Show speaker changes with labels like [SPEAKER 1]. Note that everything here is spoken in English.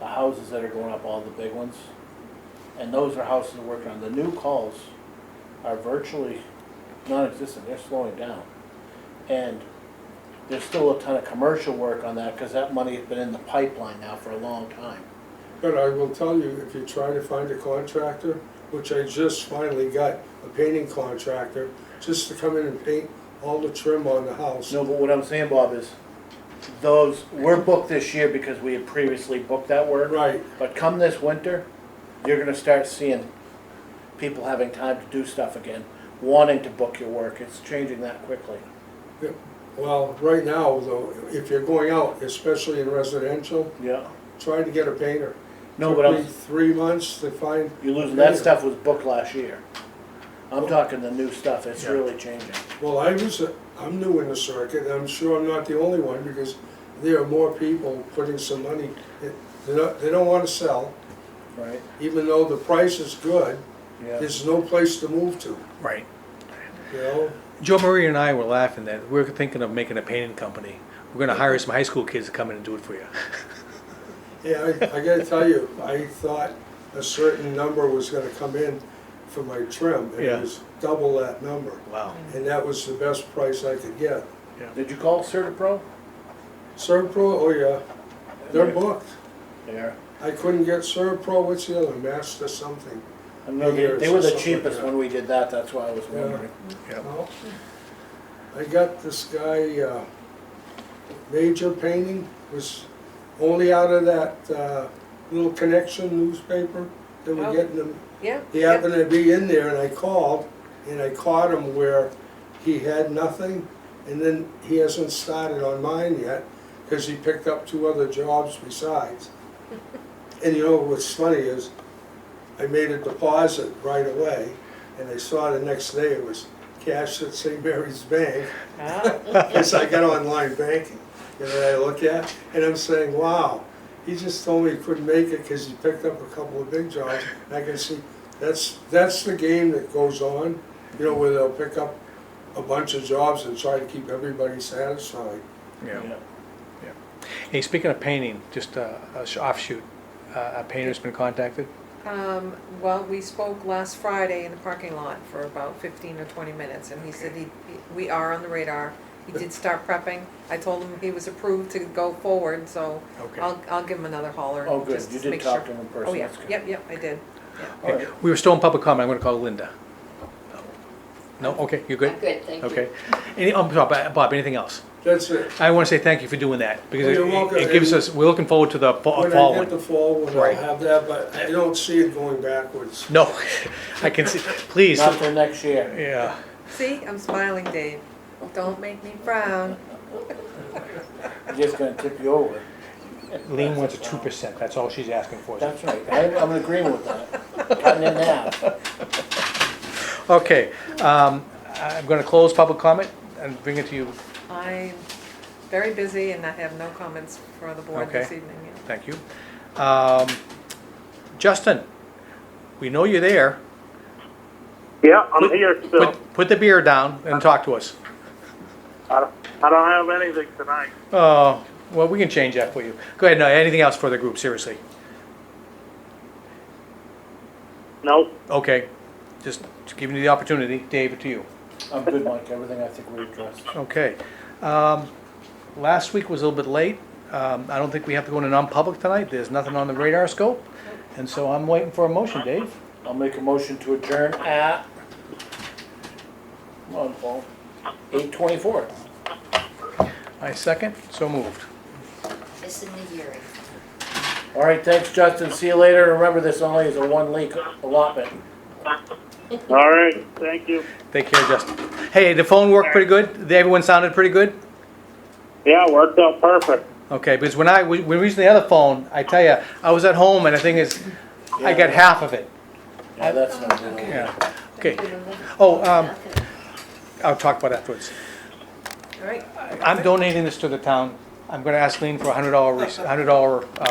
[SPEAKER 1] houses that are going up, all the big ones. And those are houses we're working on. The new calls are virtually non-existent, they're slowing down. And there's still a ton of commercial work on that, cause that money has been in the pipeline now for a long time.
[SPEAKER 2] But I will tell you, if you try to find a contractor, which I just finally got, a painting contractor, just to come in and paint all the trim on the house.
[SPEAKER 1] No, but what I'm saying, Bob, is those, we're booked this year because we had previously booked that work.
[SPEAKER 2] Right,
[SPEAKER 1] But come this winter, you're gonna start seeing people having time to do stuff again, wanting to book your work, it's changing that quickly.
[SPEAKER 2] well, right now, though, if you're going out, especially in residential,
[SPEAKER 1] Yeah.
[SPEAKER 2] try to get a painter.
[SPEAKER 1] No, but
[SPEAKER 2] Took me
[SPEAKER 1] I'm,
[SPEAKER 2] Three months to find,
[SPEAKER 1] you're losing, that stuff was booked last year. I'm talking the new stuff, it's
[SPEAKER 3] Yeah.
[SPEAKER 1] really changing.
[SPEAKER 2] well, I was, I'm new in the circuit, and I'm sure I'm not the only one, because there are more people putting some money. They don't, they don't wanna sell,
[SPEAKER 1] Right.
[SPEAKER 2] even though the price is good,
[SPEAKER 1] Yeah.
[SPEAKER 2] there's no place to move to,
[SPEAKER 3] Right.
[SPEAKER 2] you know?
[SPEAKER 3] Joe Marie and I were laughing that we are thinking of making a painting company. We're going to hire some high school kids to come in and do it for you.
[SPEAKER 2] Yeah, I, I gotta tell you, I thought a certain number was gonna come in for my trim, and
[SPEAKER 3] Yeah.
[SPEAKER 2] it was double that number.
[SPEAKER 3] Wow.
[SPEAKER 2] And that was the best price I could get.
[SPEAKER 1] Did you call Certapro?
[SPEAKER 2] Serpro, oh yeah, they're booked.
[SPEAKER 1] They are.
[SPEAKER 2] I couldn't get Serpro, what's the other, Master something?
[SPEAKER 1] I know, they, they were the cheapest
[SPEAKER 2] Yeah.
[SPEAKER 1] when we did that, that's why I was wondering.
[SPEAKER 3] Yep.
[SPEAKER 2] Well, I got this guy, uh, Major Painting, was only out of that, uh, little connection newspaper that we
[SPEAKER 4] Oh.
[SPEAKER 2] get in the
[SPEAKER 4] Yeah.
[SPEAKER 2] He happened to be in there and I called and I caught him where he had nothing and then he hasn't started on mine yet because he picked up two other jobs besides. And you know what's funny is I made a deposit right away and I saw the next day it was cash at St. Mary's Bank.
[SPEAKER 4] Ah,
[SPEAKER 2] Yes, I got online banking, you know, that I look at, and I'm saying, wow, he just told me he couldn't make it because he picked up a couple of big jobs. And I can see, that's, that's the game that goes on, you know, where they'll pick up a bunch of jobs and try to keep everybody satisfied.
[SPEAKER 3] Yeah.
[SPEAKER 1] Yeah.
[SPEAKER 3] Hey, speaking of painting, just uh, a sh- offshoot, uh, a painter's been contacted.
[SPEAKER 4] um, Well, we spoke last Friday in the parking lot for about 15 or 20 minutes, and he said he, we are on the radar. He did start prepping. I told him he was approved to go forward, so
[SPEAKER 3] Okay.
[SPEAKER 4] I'll, I'll give him another holler.
[SPEAKER 1] Oh, good,
[SPEAKER 4] just
[SPEAKER 1] you
[SPEAKER 4] make
[SPEAKER 1] did
[SPEAKER 4] sure.
[SPEAKER 1] talk to him in person,
[SPEAKER 4] Oh, yeah,
[SPEAKER 1] that's good.
[SPEAKER 4] yep, yep, I did.
[SPEAKER 2] Oh,
[SPEAKER 1] All right.
[SPEAKER 3] We were still in public comment. I'm going to call Linda. No? Okay, you're good?
[SPEAKER 5] I'm good, thank you.
[SPEAKER 3] Okay. Any, um, Bob, Bob, anything else?
[SPEAKER 2] That's it.
[SPEAKER 3] I want to say thank you for doing that
[SPEAKER 2] Well,
[SPEAKER 3] because it,
[SPEAKER 2] Oh, you're welcome.
[SPEAKER 3] it gives us, we're looking forward to the fa-
[SPEAKER 2] When
[SPEAKER 3] fall
[SPEAKER 2] I get
[SPEAKER 3] one.
[SPEAKER 2] the fall one, I'll
[SPEAKER 3] Right.
[SPEAKER 2] have that, but I don't see it going backwards.
[SPEAKER 3] No, I can see, please.
[SPEAKER 1] Not till next year.
[SPEAKER 3] Yeah.
[SPEAKER 4] See, I'm smiling, Dave. Don't make me frown.
[SPEAKER 1] I'm just gonna tip you over.
[SPEAKER 3] Lean wants a two percent, that's all she's asking for.
[SPEAKER 1] That's right, I'm, I'm in agreement with that. Cutting it in half.
[SPEAKER 3] Okay, um, I'm gonna close public comment and bring it to you,
[SPEAKER 4] I'm very busy, and I have no comments for the board this
[SPEAKER 3] Okay.
[SPEAKER 4] evening. yeah.
[SPEAKER 3] thank you. Um, Justin, we know you're there,
[SPEAKER 6] Yeah, I'm here still.
[SPEAKER 3] put, put the beer down and talk to us.
[SPEAKER 6] I don't, I don't have anything tonight.
[SPEAKER 3] Oh, well, we can change that for you. Go ahead, no, anything else for the group, seriously?
[SPEAKER 6] Nope.
[SPEAKER 3] Okay, just giving you the opportunity, David, to you.
[SPEAKER 1] I'm good, Mike, everything I think we addressed.
[SPEAKER 3] Okay. Um, Last week was a little bit late. Um, I don't think we have to go into non-public tonight. There's nothing on the radar scope. And so I'm waiting for a motion, Dave.
[SPEAKER 1] I'll make a motion to adjourn at, come on, Paul, eight twenty-four.
[SPEAKER 3] I second, so moved.
[SPEAKER 5] It's in the hearing.
[SPEAKER 1] All right, thanks, Justin, see you later, remember, this only is a one-leak allotment.
[SPEAKER 6] All right, thank you.
[SPEAKER 3] Take care, Justin. Hey, the phone worked pretty good? Everyone sounded pretty good?
[SPEAKER 6] Yeah, worked out perfect.
[SPEAKER 3] Okay, because when I, when we reached the other phone, I tell you, I was at home and the thing is, I got half of it.
[SPEAKER 1] Yeah, that's not good.
[SPEAKER 3] Yeah. Okay. Oh, um, I'll talk about it afterwards.
[SPEAKER 4] All right.
[SPEAKER 3] I'm donating this to the town. I'm gonna ask Lean for a hundred dollar, uh, hundred dollar